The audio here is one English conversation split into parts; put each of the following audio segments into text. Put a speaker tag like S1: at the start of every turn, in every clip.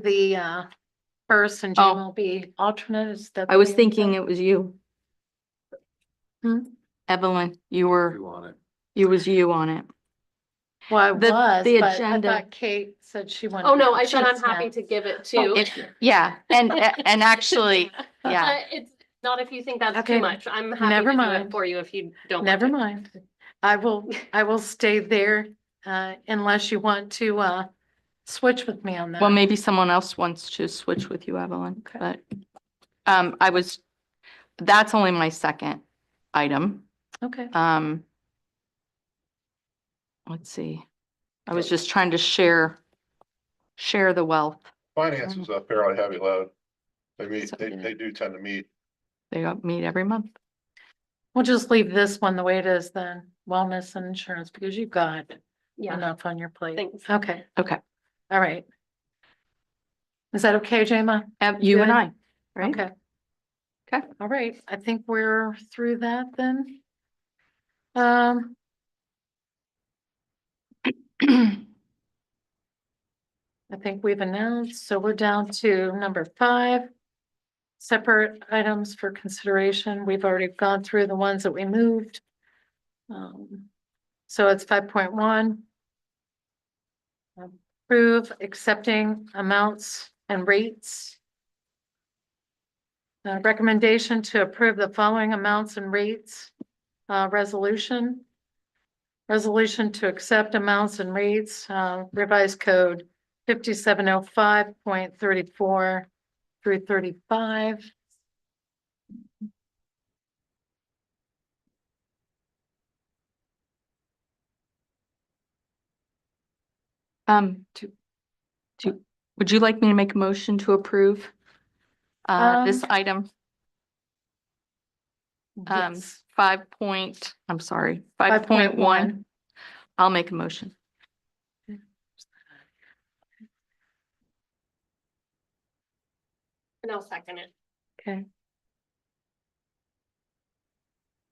S1: the uh first and Jim
S2: Oh.
S1: will be alternate. Is that?
S2: I was thinking it was you.
S1: Hmm?
S2: Evelyn, you were,
S3: You on it.
S2: you was you on it.
S1: Well, I
S2: the-
S1: was,
S2: the
S1: but I
S2: agenda-
S1: thought Kate said she wanted.
S4: Oh,
S1: to
S4: no,
S1: have
S4: I said I'm
S1: chips now.
S4: happy to give it
S1: Oh,
S4: too.
S2: If- Yeah, and, and actually, yeah,
S4: Uh, It's not if you think that's
S1: Okay.
S4: too much. I'm happy
S1: Never
S4: to do
S1: mind.
S4: it for you if you don't. want
S1: Never
S4: it.
S1: mind. I will, I will stay there uh unless you want to uh switch with me on that.
S2: well, maybe someone else wants to switch with you, Evelyn,
S1: Okay.
S2: but, um, I was, that's only my second item.
S1: Okay,
S2: Um, let's see, I was just trying to share, share the wealth.
S3: Finance is a fairly heavy load. They meet,
S2: So-
S3: they, they do tend to meet.
S2: They don't meet every month.
S1: we'll just leave this one the way it is then, wellness and insurance, because you've got
S4: Yeah,
S1: enough on your plate.
S4: thanks.
S1: Okay.
S2: Okay.
S1: All right. Is that okay, Jema?
S2: Ev- You and
S1: Good.
S2: I, right?
S1: Okay.
S2: Okay.
S1: All right, I think we're through that then. Um, I think we've announced, so we're down to number five. Separate items for consideration. We've already gone through the ones that we moved. Um, So it's five point one. Approve accepting amounts and rates. Uh, recommendation to approve the following amounts and rates, uh, resolution. Resolution to accept amounts and rates, uh, revised code fifty-seven oh five point thirty-four through thirty-five.
S2: Um, to, to, would you like me to make a motion to approve? Uh, this
S1: Um,
S2: item, um,
S1: Yes.
S2: five point, I'm sorry, five point one. I'll make a motion.
S4: And I'll second it.
S1: Okay.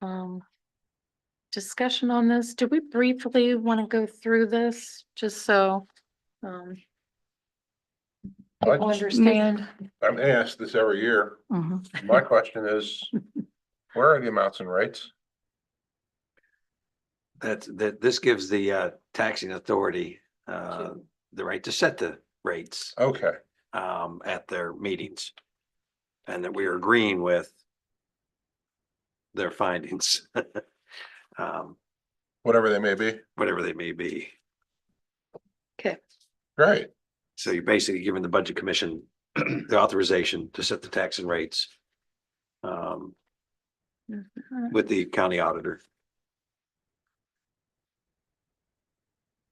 S1: Um, discussion on this, do we briefly want to go through this, just so, um,
S3: I
S1: people understand?
S3: I'm asked this every year.
S2: Mhm.
S3: My question is, where are the amounts and rates?
S5: That's, that, this gives the uh, taxing authority uh, the right to set the rates
S3: Okay,
S5: um, at their meetings. And that we are agreeing with their findings, um,
S3: whatever they may be.
S5: whatever they may be.
S1: Okay,
S3: Great.
S5: So you're basically giving the Budget Commission the authorization to set the tax and rates um, with the county auditor.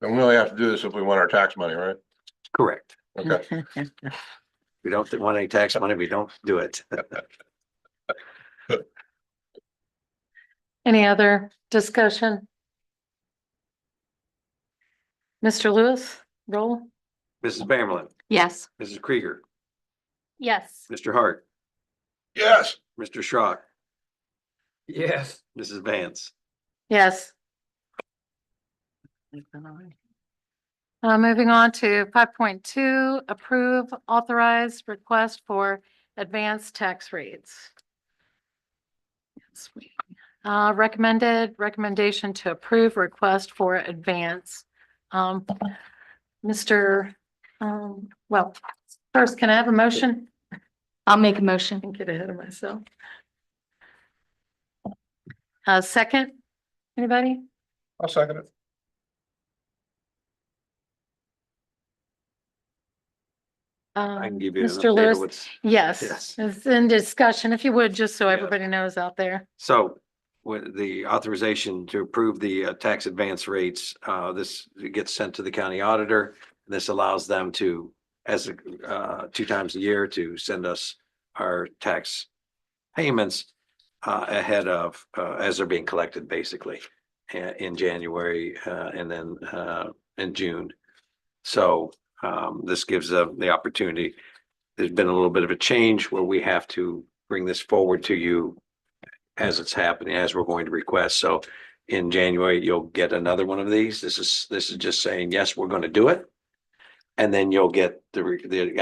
S3: And we only have to do this if we want our tax money, right?
S5: Correct.
S3: Okay,
S5: We don't want any tax money. We don't do it.
S1: any other discussion? Mr. Lewis, roll?
S5: Mrs. Bamberlin,
S2: Yes,
S5: Mrs. Krieger,
S4: Yes.
S5: Mr. Hart.
S3: yes.
S5: Mr. Schrock. Yes. Mrs. Vance.
S1: Yes. Uh, moving on to five point two, approve authorized request for advanced tax rates. Yes, we- Uh, recommended, recommendation to approve request for advance. Um, Mr. Um, well, first, can I have a motion?
S2: I'll make a motion.
S1: and get ahead of myself. Uh, second, anybody?
S3: I'll second it.
S5: I can
S1: Um,
S5: give you. an
S1: Mr.
S5: update of
S1: Lewis?
S5: what's-
S1: yes,
S5: Yes.
S1: it's in discussion, if you would, just so
S5: Yeah.
S1: everybody knows out there.
S5: So with the authorization to approve the uh, tax advance rates, uh, this gets sent to the county auditor. This allows them to, as, a, uh, two times a year to send us our tax payments uh, ahead of, uh, as they're being collected basically uh, in January, uh, and then, uh, in June. So, um, this gives them the opportunity. There's been a little bit of a change where we have to bring this forward to you as it's happening, as we're going to request. So in January, you'll get another one of these. This is, this is just saying, yes, we're going to do it. And then you'll get the, re- the